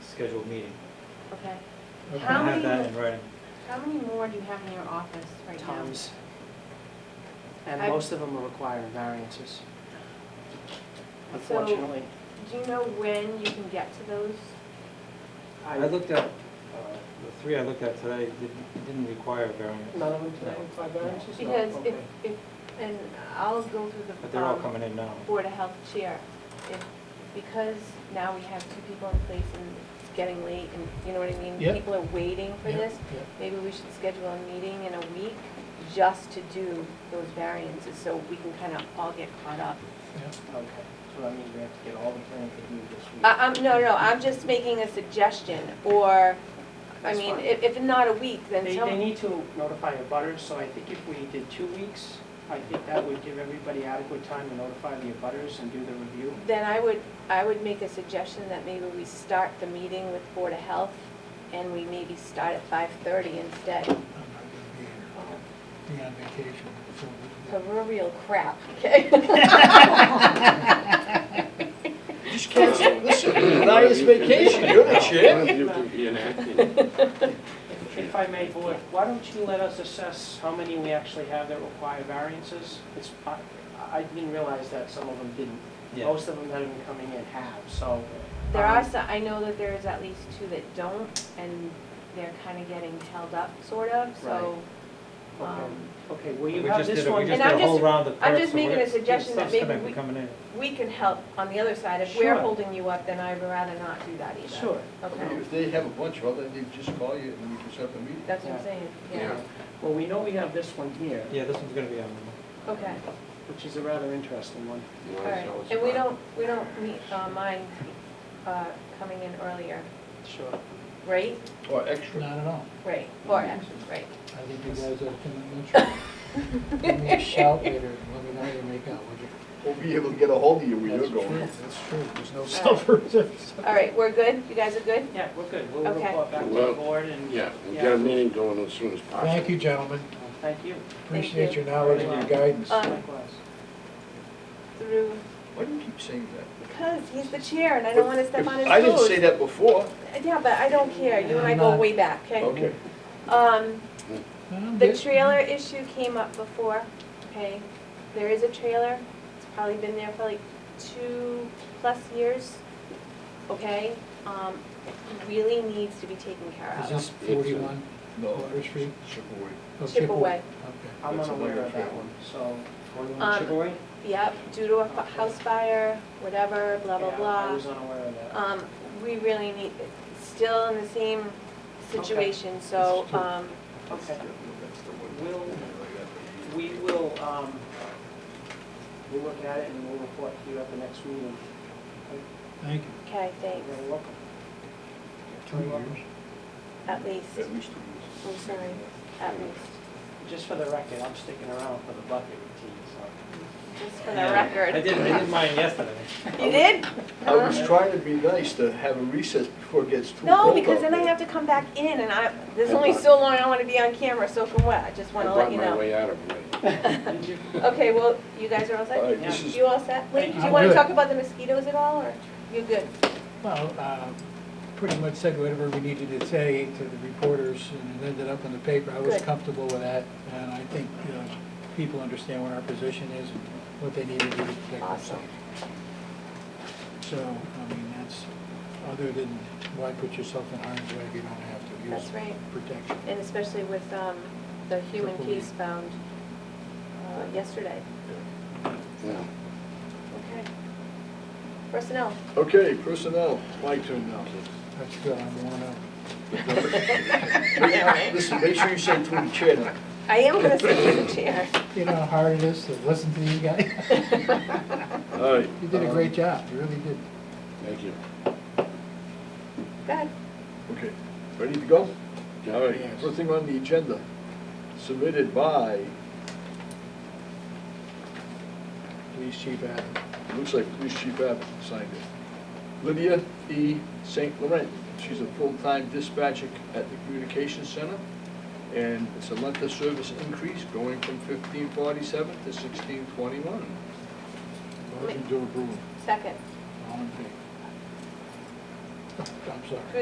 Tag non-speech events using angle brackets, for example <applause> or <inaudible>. scheduled meeting. Okay. I How have that many, in writing. how many more do you have in your office right now? tons. And I- most of them are requiring variances, So, unfortunately. do you know when you can get to those? I looked at, uh, the three I looked at today didn't, didn't require a variance, None of them today require variances? No, Because if, okay. if, and I'll go through the. but they're all um, coming in now. Board of Health chair, if, because now we have two people in place and it's getting late and, you know what I mean? Yep. People are waiting for Yep, this, yep. maybe we should schedule a meeting in a week just to do those variances, so we can kind of all get caught up. Okay, so that means we have to get all the planning to do this week. I, I'm, no, no, I'm just making a suggestion, or, I That's mean, fine. if, if not a week, then They, tell they need to notify the butters, so I think if we did two weeks, I think that would give everybody adequate time to notify the butters and do the review. Then I would, I would make a suggestion that maybe we start the meeting with Board of Health, and we maybe start at five-thirty instead. I'm not gonna be here, be on vacation, so. So we're real crap, okay? Just cancel, <laughs> listen, nice vacation, you're the One chair. of you can be an acting. If I may, board, why don't you let us assess how many we actually have that require variances? It's, I, I didn't realize that some of them didn't. Yeah. Most of them that have been coming in have, so. There are um, some, I know that there is at least two that don't, and they're kind of getting held up, sort of, so. okay. um, Okay, well, We you have just did, this a- we one. just did And a I'm whole just- round of I'm perks, just so making we're- a suggestion that stuff's maybe gonna be we- coming in. We can help on the other side. If we're Sure. holding you up, then I'd rather not do that either. Sure. Okay, If they have a bunch of them, they just call you and we can set up a meeting. that's what I'm saying, yeah. Yeah. Well, we know we have this one here, Yeah, this one's gonna be um, on. Okay, which is a rather interesting one. You all wanna right. tell us And we about it? don't, we don't meet, uh, mind, uh, coming in earlier, Sure. right? Or extra. Not at all, Right, or Mm-hmm. actually, right. I think you guys are coming <laughs> in, give me a shout later, and let me know how you make out, would you? We'll be able to get a hold of you where you're That's going. true, That's true, there's no self-reference. All right, we're good? You guys are good? Yeah, we're good. We'll Okay. report back to the Well, board and. Yeah, we'll get a meeting going as soon as possible. Thank you, gentlemen, um, Thank you. appreciate your knowledge and your guidance. Um, Likewise. Through, Why do you keep saying that? because he's the chair and I don't want to step If- on his toes. I didn't say that before. Yeah, but I don't care. You and I go way back, okay? Okay. Um, Um, The this- trailer issue came up before, okay? There is a trailer, it's probably been there for like two plus years, okay? Um, it really needs to be taken care Is of. this forty-one No. Water Street? Chippewa. Oh, Chip away. Okay. I'm That's unaware another of that trail. one, so. Um, Chicory? Yep, due to a fu- house fire, whatever, blah, blah, Yeah, I blah. was unaware of that. Um, we really need, it's still in the same situation, so, It's true. um, That's Okay. the- that's the one. Will- Like We will, um, we'll look at it and we'll report to you at the next meeting. Thank you. okay, thanks, You're welcome. Two years. at that. least, At least two I'm years. sorry, at least. Just for the record, I'm sticking around for the bucket routine, so. Just for the Yeah. record. I did, I did mine yesterday. You did? I was trying to be nice to have a recess before it gets too cold. Uh-huh. No, because out then I there. have to come back in and I, there's only so long I want to be on camera soaking wet. I just I want to let brought you my know. way out of it. Did you? Okay, well, you guys are all All set? right, this is- You all set? Wait, do you I'm want to good. talk about the mosquitoes at all or you're good? Well, uh, pretty much said whatever we needed to say to the reporters, and it ended up in the paper. I was Good. comfortable with that, and I think, you know, people understand what our position is, and what they need to do to protect Awesome. themselves. So, I mean, that's, other than, why put yourself in harm's way if you don't have to use That's right. protection? And especially with um, the human Triple piece E. found uh, yesterday. Yeah. Okay. Personnel. Okay, personnel, my turn <laughs> now. That's good, I'm one up. Listen, make sure you say to the chair now. I am going to sit in the chair. <laughs> You know how hard it is to listen to these guys? <laughs> All right. You Uh-huh. did a great job, you really did. Thank you. Good. Okay, ready to go? Yeah. All right, Yes. first thing on the agenda, submitted by, Police Chief uh, Adam. looks like Police Chief Abbott signed it. Lydia E. St. Laurent, she's a full-time dispatcher at the Communications Center, and it's a month of service increase going from fifteen forty-seven to sixteen twenty-one. Motion to approve. Second. All in favor? I'm sorry.